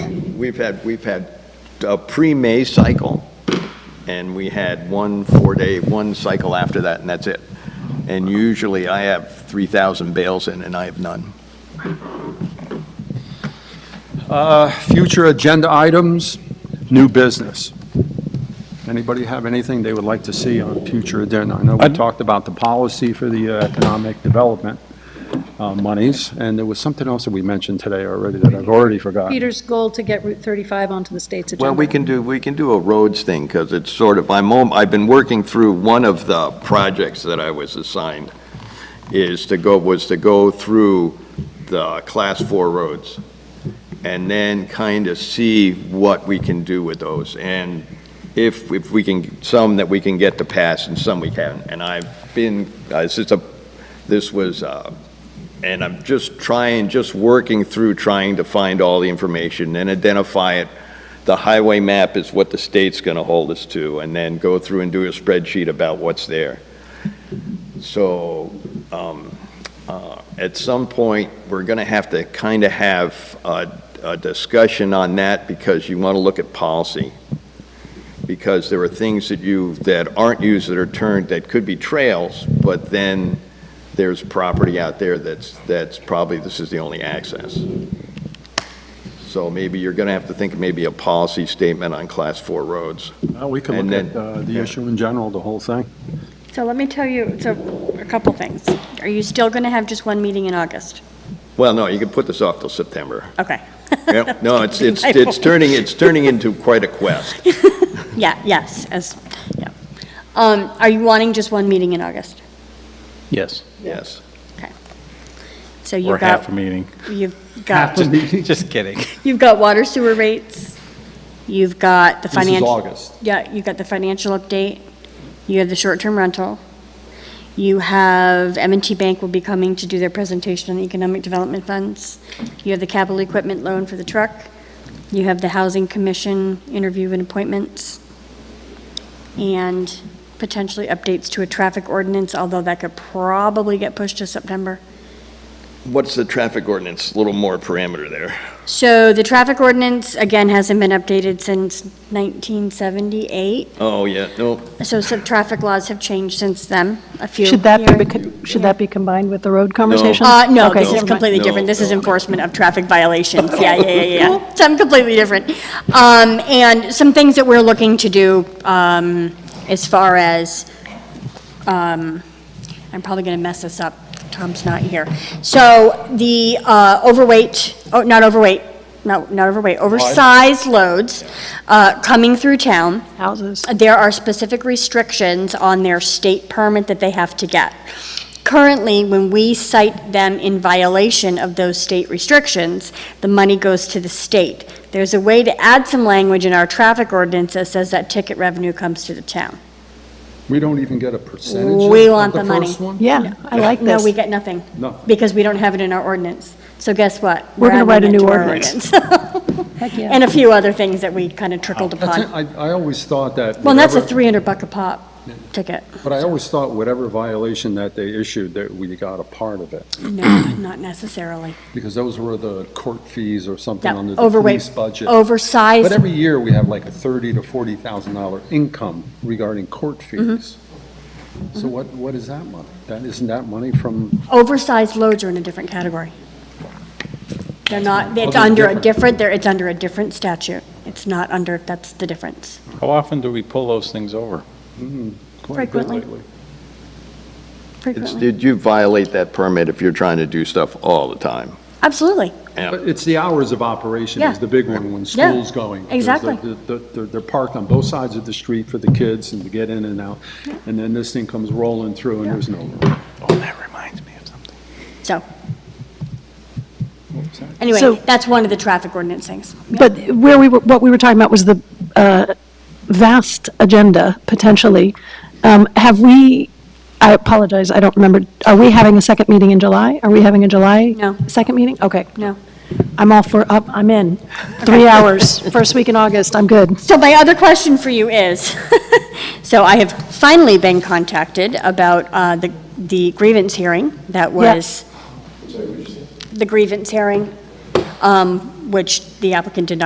we've had, we've had a pre-May cycle, and we had one four-day, one cycle after that, and that's it. And usually I have 3,000 bales in, and I have none. Uh, Future agenda items, new business. Anybody have anything they would like to see on future agenda? I know we talked about the policy for the uh, economic development uh, monies, and there was something else that we mentioned today already that I've already forgotten. Peter's goal to get Route 35 onto the state's agenda. Well, we can do, we can do a roads thing, because it's sort of, I'm, om- I've been working through, one of the projects that I was assigned is to go, was to go through the class four roads, and then kind of see what we can do with those, and if, if we can, some that we can get to pass and some we can't. And I've been, uh, this is a, this was, uh, and I'm just trying, just working through, trying to find all the information and identify it the highway map is what the state's going to hold us to, and then go through and do a spreadsheet about what's there. So um, uh, at some point, we're going to have to kind of have a a discussion on that because you want to look at policy. Because there are things that you, that aren't used that are turned, that could be trails, but then there's property out there that's, that's probably, this is the only access. So maybe you're going to have to think of maybe a policy statement on class four roads. Uh, We can And look at then- uh, the issue in general, the whole thing. So let me tell you, so a couple things. Are you still going to have just one meeting in August? Well, no, you can put this off till September. Okay. Yeah, No, it's, it's, My it's fault. turning, it's turning into quite a quest. Yeah, yes, as, yeah. Um, Are you wanting just one meeting in August? Yes, Yes. So you've or got- half a meeting. You've got, Just kidding. you've got water sewer rates, you've got the This is financial. August. Yeah, you've got the financial update, you have the short-term rental, you have, m and T Bank will be coming to do their presentation on the economic development funds, you have the capital equipment loan for the truck, you have the Housing Commission interview and appointments, and potentially updates to a traffic ordinance, although that could probably get pushed to September. What's the traffic ordinance? A little more parameter there. So the traffic ordinance, again, hasn't been updated since 1978. Oh, yeah, no, So some traffic laws have changed since then, a few. Should that be, here. becau- should that be combined with the road conversation? Uh, no, Okay, this is never mind. completely No, different. This is no. enforcement of traffic violations. Yeah, yeah, yeah, yeah. Something completely different. Um, and some things that we're looking to do, um, as far as, um, I'm probably gonna mess this up. Tom's not here. So the, uh, overweight, oh, not overweight, no, not overweight, oversized loads, uh, coming through town Houses. there are specific restrictions on their state permit that they have to get. Currently, when we cite them in violation of those state restrictions, the money goes to the state. There's a way to add some language in our traffic ordinance that says that ticket revenue comes to the town. We don't even get a percentage We want of the the money. first one? Yeah, I like No, this. we get nothing. No. Because we don't have it in our ordinance. So guess what? We're gonna adding write a it new to our ordinance. Heck yeah. And a few other things that we kind of trickled That's it. upon. I, I always thought that. Well, and that's a whatever- 300 buck a pop ticket. But I always thought whatever violation that they issued, that we got a part of it. No, not necessarily. Because those were the court fees or something Yeah, under the police overweight, budget. But oversized, every year, we have like a thirty to forty thousand dollar income regarding court Mm-hmm. fees. So what, what is that money? That, isn't that money from, oversized loads are in a different category. They're not, it's Other under a different. different, they're, it's under a different statute. It's not under, that's the difference. How often do we pull those things over? quite a bit Frequently. lately. It's- Frequently, Did you violate that permit if you're trying to do stuff all the time? absolutely. But it's the hours of operation is Yeah. the big one when Yeah, school's going. There's the- exactly. the- the- They're, they're parked on both sides of the street for the kids and to get in and out. And then this thing comes rolling through and there's no room. Oh, that reminds me of something. So, What was that? So- anyway, that's one of the traffic ordinance things. But where we were, what we were talking about was the uh, vast agenda, potentially. Um, Have we, I apologize, I don't remember, are we having a second meeting in July? Are we having a July? No. Second meeting? Okay. No. I'm all for, up. I'm in. Three hours, first week in August, I'm good. So my other question for you is, so I have finally been contacted about uh, the the grievance hearing that was, the grievance hearing, um, which the applicant did not.